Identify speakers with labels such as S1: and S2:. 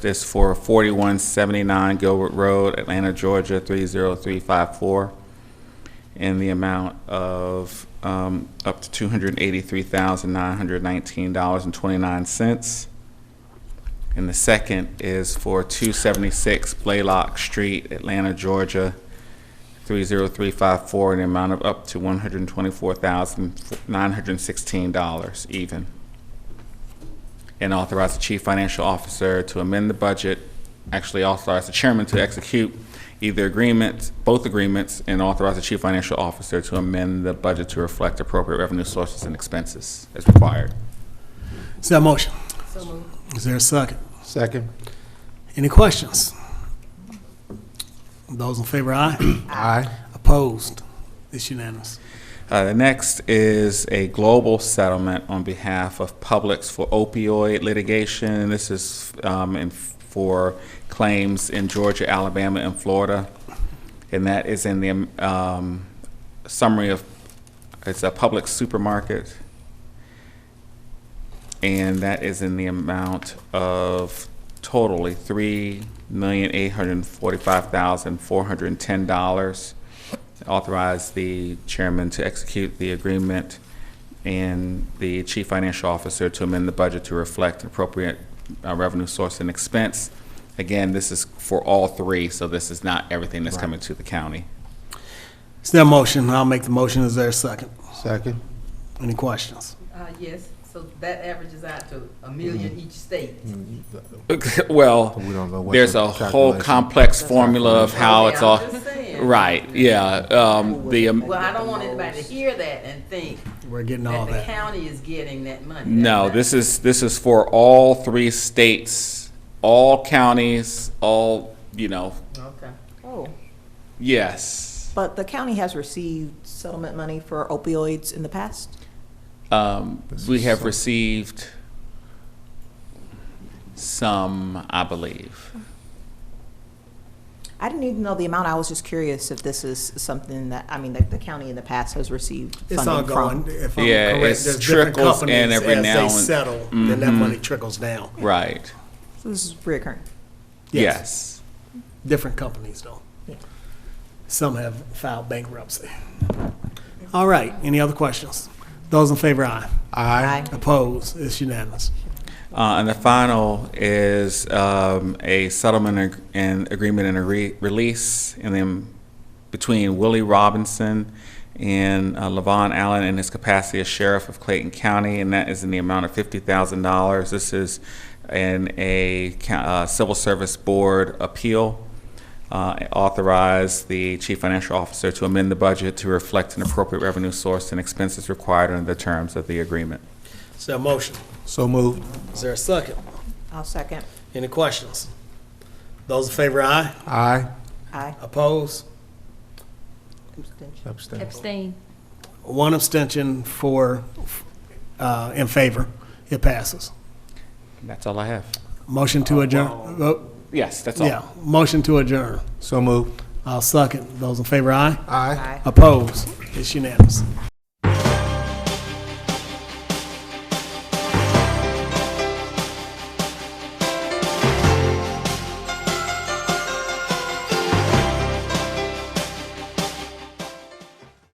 S1: This for 4179 Gilbert Road, Atlanta, Georgia, 30354, in the amount of um, up to $283,919.29. And the second is for 276 Blaylock Street, Atlanta, Georgia, 30354, in the amount of up to $124,916 even and authorize the chief financial officer to amend the budget, actually authorize the chairman to execute either agreements, both agreements, and authorize the chief financial officer to amend the budget to reflect appropriate revenue sources and expenses as required.
S2: Is there a motion? Is there a second?
S3: Second.
S2: Any questions? Those in favor, aye.
S3: Aye.
S2: Opposed? It's unanimous.
S1: Uh, the next is a global settlement on behalf of Publix for opioid litigation. This is um, in, for claims in Georgia, Alabama, and Florida. And that is in the um, summary of, it's a public supermarket. And that is in the amount of totally $3,845,410 authorize the chairman to execute the agreement and the chief financial officer to amend the budget to reflect appropriate uh, revenue source and expense. Again, this is for all three, so this is not everything that's coming to the county.
S2: Is there a motion? I'll make the motion. Is there a second?
S3: Second.
S2: Any questions?
S4: Uh, yes, so that averages out to a million each state.
S1: Well,
S3: We don't know what.
S1: there's
S3: the
S1: a whole
S3: calculation-
S1: complex formula of how it's all,
S4: I'm just saying.
S1: right, yeah. um, The, um,
S4: Well, I don't want anybody to hear that and think
S2: We're getting all
S4: that the
S2: that.
S4: county is getting that money.
S1: no, this is, this is for all three states, all counties, all, you know,
S4: Okay.
S5: Oh,
S1: yes.
S5: but the county has received settlement money for opioids in the past?
S1: Um,
S3: This
S1: we
S3: is
S1: have
S3: some-
S1: received some, I believe.
S5: I didn't even know the amount. I was just curious if this is something that, I mean, that the county in the past has received
S2: It's
S5: funding
S2: ongoing.
S5: from.
S2: If I'm
S1: Yeah,
S2: correct,
S1: it's
S2: there's different
S1: trickles in
S2: companies,
S1: every now and-
S2: As
S1: Mm-hmm.
S2: they settle, then that money trickles down.
S1: Right.
S5: So This is reoccurring.
S1: Yes.
S2: Different companies though.
S5: Yeah.
S2: Some have filed bankruptcy. All right, any other questions? Those in favor, aye.
S3: Aye.
S5: Aye.
S2: Opposed? It's unanimous.
S1: Uh, and the final is um, a settlement ag- and agreement and a re- release in the, between Willie Robinson and uh, Levon Allen in his capacity as sheriff of Clayton County, and that is in the amount of fifty thousand dollars. This is in a ca- uh, civil service board appeal. Uh, authorize the chief financial officer to amend the budget to reflect an appropriate revenue source and expenses required under the terms of the agreement.
S2: Is there a motion?
S3: So moved.
S2: Is there a second?
S5: I'll second.
S2: Any questions? Those in favor, aye.
S3: Aye.
S5: Aye.
S2: Opposed?
S5: Abstention.
S3: Abstain.
S6: Abstain.
S2: One abstention for, uh, in favor. It passes.
S1: That's all I have.
S2: Motion to adjourn. Oh,
S1: Yes, that's all.
S2: Yeah, motion to adjourn.
S3: So moved.
S2: I'll second. Those in favor, aye.
S3: Aye.
S5: Aye.
S2: Opposed? It's unanimous.